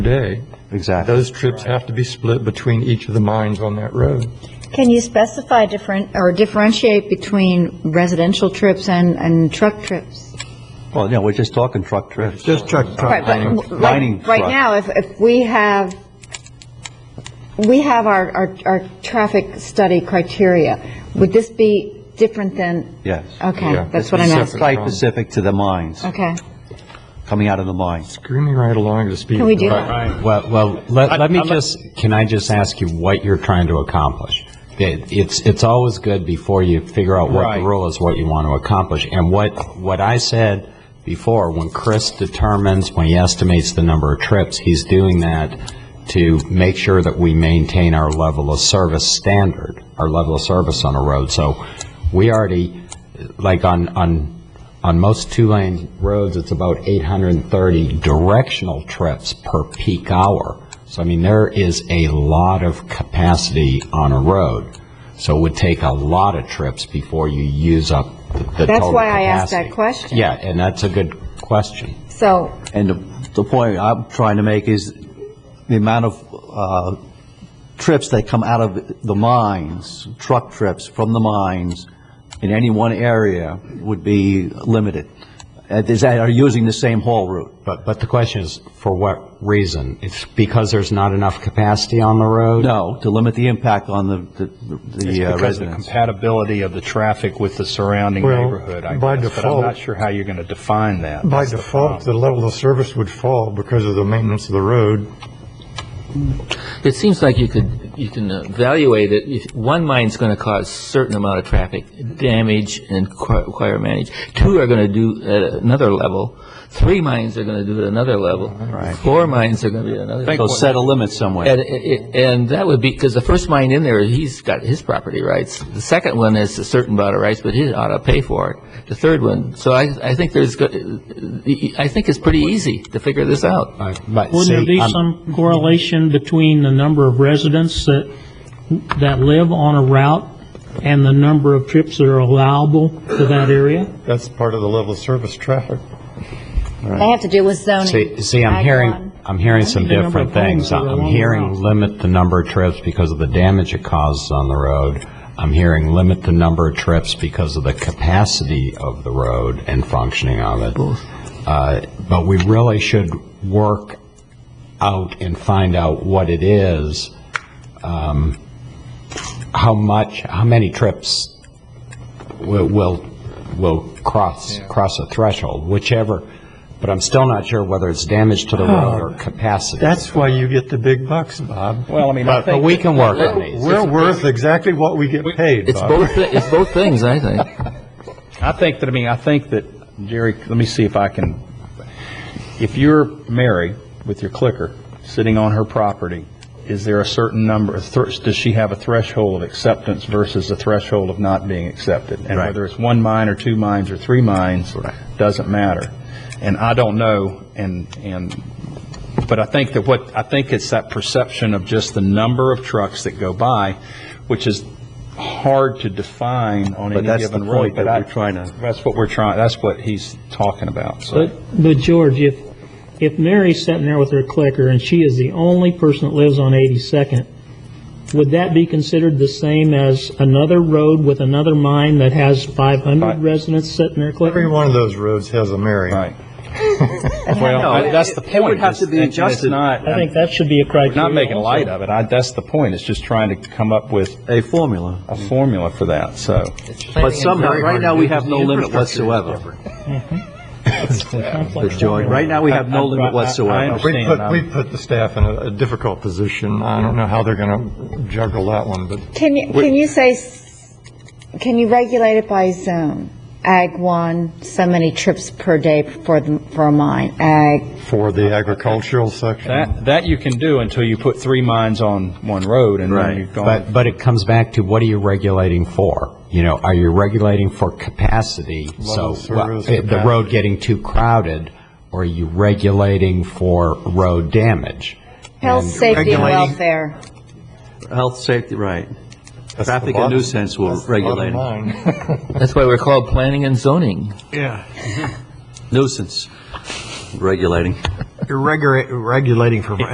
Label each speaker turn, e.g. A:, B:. A: day.
B: Exactly.
A: Those trips have to be split between each of the mines on that road.
C: Can you specify different, or differentiate between residential trips and, and truck trips?
B: Well, no, we're just talking truck trips.
A: Just truck,
C: Right, but
B: mining-
C: w-
B: mining
C: right- Right
B: truck.
C: now, if, if we have, we have our, our, our traffic study criteria, would this be different than?
B: Yes.
A: Yeah,
C: Okay, that's what
A: it's
C: I'm
A: separate.
C: asking.
B: Site specific to the mines,
C: Okay.
B: coming out of the mines.
A: Screaming right along at the speed.
C: Can we do
A: limit.
C: that? Right.
D: Well, well, let, let me
E: I'm-
D: just, can I just ask you what you're trying to accomplish? It- It's, it's always good before you figure out what the
E: Right.
D: rule is, what you want to accomplish. And what, what I said before, when Chris determines, when he estimates the number of trips, he's doing that to make sure that we maintain our level of service standard, our level of service on a road. So we already, like on, on, on most two-lane roads, it's about 830 directional trips per peak hour. So I mean, there is a lot of capacity on a road. So it would take a lot of trips before you use up the the total capacity.
C: That's why I asked that question.
D: Yeah, and that's a good question.
C: So,
B: And the, the point I'm trying to make is the amount of, uh, trips that come out of the mines, truck trips from the mines in any one area would be limited. Uh, Is that, are using the same haul route?
D: But, but the question is, for what reason? It's because there's not enough capacity on the road?
B: No, to limit the impact on the, the- the uh,
E: Because of the
B: residents.
E: compatibility of the traffic with the surrounding
A: Well,
E: neighborhood, I
A: by
E: guess, but I'm
A: default-
E: not sure how you're going to define that.
A: By
E: That's the
A: default, the
E: problem.
A: level of service would fall because of the maintenance of the road.
F: It seems like you could, you can uh, evaluate it, if one mine's going to cause certain amount of traffic damage and require- require manage, two are going to do at another level, three mines are going to do at another level, four mines are going to be at another level.
B: So set a limit somewhere.
F: And, and- and that would be, because the first mine in there, he's got his property rights. The second one is a certain amount of rights, but he ought to pay for it. The third one, so I, I think there's, go- I think it's pretty easy to figure this out.
D: Uh, But
G: Wouldn't there
D: see,
G: be
D: I'm-
G: some correlation between the number of residents that, that live on a route and the number of trips that are allowable to that area?
A: That's part of the level of service traffic.
C: they have to do with zoning.
D: See, see, I'm
C: Ag
D: hearing,
C: one.
D: I'm hearing some
G: Maybe the number
D: different
G: of
D: things.
G: homes that are
D: I'm
G: along
D: hearing
G: the route.
D: limit the number of trips because of the damage it causes on the road. I'm hearing limit the number of trips because of the capacity of the road and functioning of it. Uh, But we really should work out and find out what it is, um, how much, how many trips will, will, will cross, cross a threshold, whichever, but I'm still not sure whether it's damage to the road or capacity.
A: Oh. That's why you get the big bucks, Bob.
E: Well, I mean, I
D: But, but we
E: think,
D: can work on these.
A: We're worth exactly what we get paid,
F: It's
A: Bob.
F: both, thi- it's both things, I think.
E: I think that, I mean, I think that, Jerry, let me see if I can, if you're Mary with your clicker, sitting on her property, is there a certain number, a thr- does she have a threshold of acceptance versus a threshold of not being accepted? And
B: Right.
E: whether it's one mine or two mines or three mines, doesn't matter. And I don't know, and, and But I think that what, I think it's that perception of just the number of trucks that go by, which is hard to define on
B: But
E: any
B: that's the
E: given road.
B: point that
E: I-
B: we're trying to-
E: That's what we're trying, that's what he's talking about, so.
G: But, but George, if, if Mary's sitting there with her clicker and she is the only person that lives on 82nd, would that be considered the same as another road with another mine that has 500
E: Right.
G: residents sitting there
A: Every
G: clicking?
A: one of those roads has a Mary.
E: Right. Well, I- that's the
B: it-
E: point.
B: it would have to
E: is-
B: be
E: and- and it's
B: adjusted.
E: not-
G: I think that should be a
E: We're
G: criteria.
E: not making
G: also.
E: light of it, I, that's the point, it's just trying to come up with
B: A formula.
E: a formula for that, so.
B: But somehow, right now, we have no limit whatsoever. Joy, right now, we have no
E: I'm-
B: limit
E: I- I
B: whatsoever.
A: We
E: understand,
A: put, we
E: I'm-
A: put the staff in a a difficult position. I don't know how they're going to juggle that one, but
C: Can you, can you say, s- can you regulate it by zone? Ag one, so many trips per day for the, for a mine, ag
A: for the agricultural section,
E: that, that you can do until you put three mines on one road and
B: Right.
E: then you've gone.
D: But, but it comes back to what are you regulating for? You know, are you regulating for capacity?
A: Level
D: So,
A: of
D: well,
A: service,
D: eh, the road
A: capacity.
D: getting too crowded, or are you regulating for road damage?
C: health,
D: And-
C: safety, and
A: regulating-
C: welfare.
B: Health, safety, right.
A: That's the
B: Traffic and
A: bottom-
B: nuisance will
A: that's the bottom
B: regulate it.
A: line.
F: That's why we're called planning and zoning.
B: Nuisance, regulating.
H: You're regula- regulating for